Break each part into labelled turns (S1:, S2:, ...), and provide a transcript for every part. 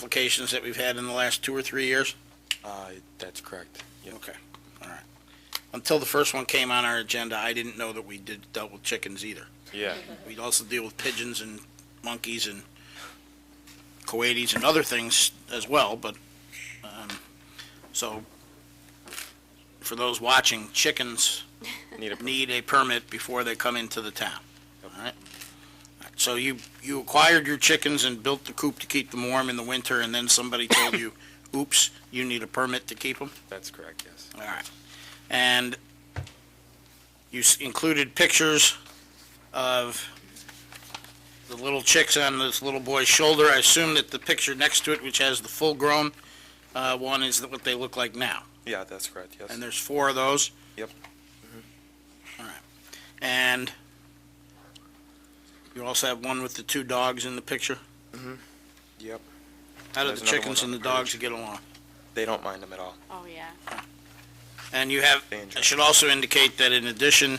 S1: applications that we've had in the last two or three years?
S2: Uh, that's correct. Yep.
S1: Okay, all right. Until the first one came on our agenda, I didn't know that we did, dealt with chickens either.
S2: Yeah,
S1: We also deal with pigeons and monkeys and coatis and other things as well, but, um, so, for those watching, chickens
S2: need a,
S1: need a permit before they come into the town, all right? So you, you acquired your chickens and built the coop to keep them warm in the winter, and then somebody told you, oops, you need a permit to keep them?
S2: that's correct, yes.
S1: All right. And you s- included pictures of the little chicks on this little boy's shoulder. I assume that the picture next to it, which has the full-grown uh, one, is what they look like now.
S2: Yeah, that's correct, yes.
S1: And there's four of those? Mm-hmm.
S2: Yep.
S1: All right. And you also have one with the two dogs in the picture?
S2: Yep,
S1: How do
S2: There's
S1: the
S2: another
S1: chickens and
S2: one on
S1: the
S2: the
S1: dogs
S2: page.
S1: get along?
S2: they don't mind them at all.
S3: Oh, yeah.
S1: And you have,
S2: They enjoy
S1: I
S2: it.
S1: should also indicate that in addition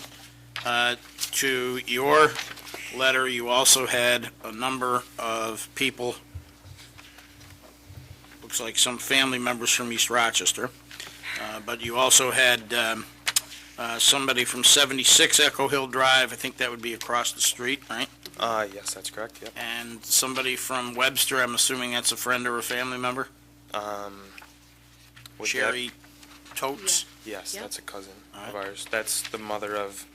S1: uh, to your letter, you also had a number of people, looks like some family members from East Rochester, uh, but you also had um, uh, somebody from 76 Echo Hill Drive, I think that would be across the street, right?
S2: Uh, yes, that's correct, yep.
S1: And somebody from Webster, I'm assuming that's a friend or a family member?
S2: Um. would that-
S1: Sherry Totes?
S2: Yes,
S3: Yep.
S2: that's a cousin
S1: Alright.
S2: of ours. That's the mother of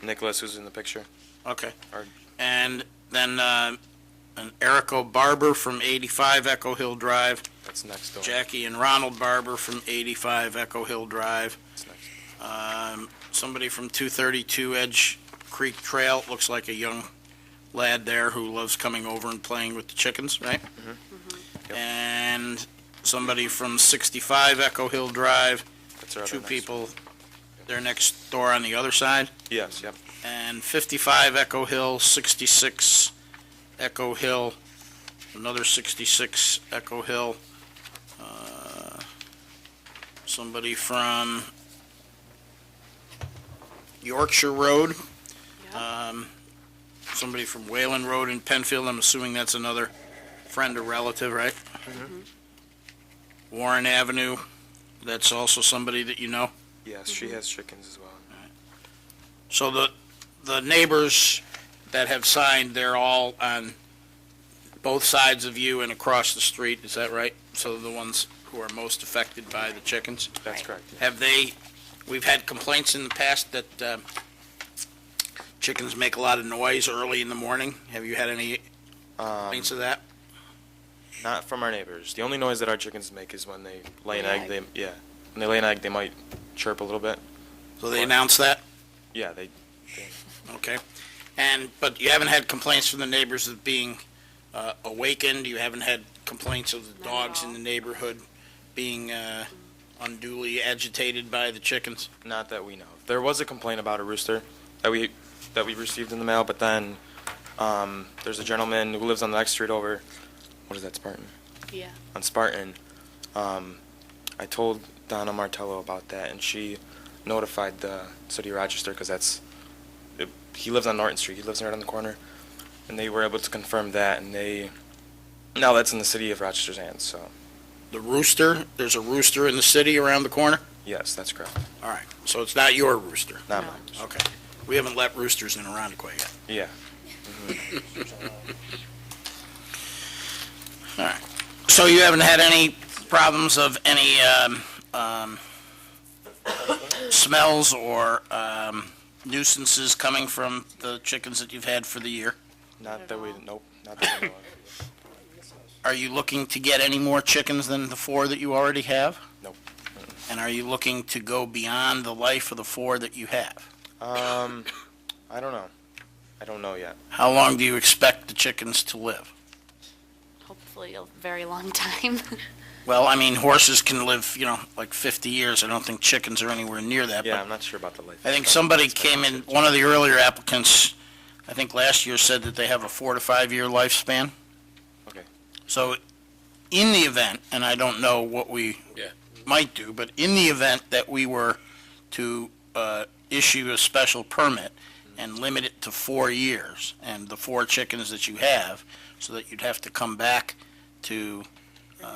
S2: Nicholas who's in the picture.
S1: Okay.
S2: Or-
S1: And then, uh, an Erico Barber from 85 Echo Hill Drive,
S2: That's next door.
S1: Jackie and Ronald Barber from 85 Echo Hill Drive,
S2: That's next.
S1: um, somebody from 232 Edge Creek Trail, looks like a young lad there who loves coming over and playing with the chickens, right?
S2: Yep.
S1: And somebody from 65 Echo Hill Drive,
S2: That's our other
S1: two
S2: next-
S1: people, they're next door on the other side
S2: Yes, yep,
S1: and 55 Echo Hill, 66 Echo Hill, another 66 Echo Hill. Uh, Somebody from Yorkshire Road, um, somebody from Wayland Road in Penfield, I'm assuming that's another friend or relative, right? Warren Avenue, that's also somebody that you know?
S2: yes, she has chickens as well.
S1: So the, the neighbors that have signed, they're all on both sides of you and across the street, is that right? So the ones who are most affected by the chickens?
S2: That's
S3: Right.
S2: correct, yeah.
S1: Have they, we've had complaints in the past that uh, chickens make a lot of noise early in the morning. Have you had any
S2: Um,
S1: complaints of that?
S2: not from our neighbors. The only noise that our chickens make is when they lay an
S3: Lay
S2: egg, they, yeah. When they lay an egg, they might chirp a little bit.
S1: So they announced that?
S2: Yeah, they,
S1: Okay. And, but you haven't had complaints from the neighbors of being uh, awakened? You haven't had complaints of the
S3: Not at
S1: dogs in
S3: all.
S1: the neighborhood being uh, unduly agitated by the chickens?
S2: Not that we know. of. There was a complaint about a rooster that we that we received in the mail, but then um, there's a gentleman who lives on the next street over. What is that, Spartan?
S3: Yeah.
S2: On Spartan, um, I told Donna Martello about that, and she notified the city of Rochester because that's it, he lives on Norton Street. He lives right on the corner, and they were able to confirm that, and they now that's in the city of Rochester's hands. So
S1: The rooster, there's a rooster in the city around the corner?
S2: yes, that's correct.
S1: All right. So it's not your rooster?
S2: Not
S3: No.
S2: mine.
S1: Okay. We haven't let roosters in Arundel yet.
S2: Yeah.
S1: So you haven't had any problems of any um, um, smells or um, nuisances coming from the chickens that you've had for the year?
S2: Not
S3: at
S2: that we.
S3: all.
S2: Nope. Not that we know of.
S1: Are you looking to get any more chickens than the four that you already have?
S2: Nope.
S1: And are you looking to go beyond the life of the four that you have?
S2: Um, I don't know. I don't know yet.
S1: How long do you expect the chickens to live?
S3: Hopefully a very long time.
S1: Well, I mean, horses can live, you know, like 50 years. I don't think chickens are anywhere near that.
S2: Yeah,
S1: but
S2: I'm not sure about the life.
S1: I think somebody came in, one of the earlier applicants, I think last year, said that they have a four to five-year lifespan.
S2: Okay.
S1: So in the event, and I don't know what we
S4: Yeah.
S1: might do, but in the event that we were to uh, issue a special permit and limit it to four years and the four chickens that you have, so that you'd have to come back to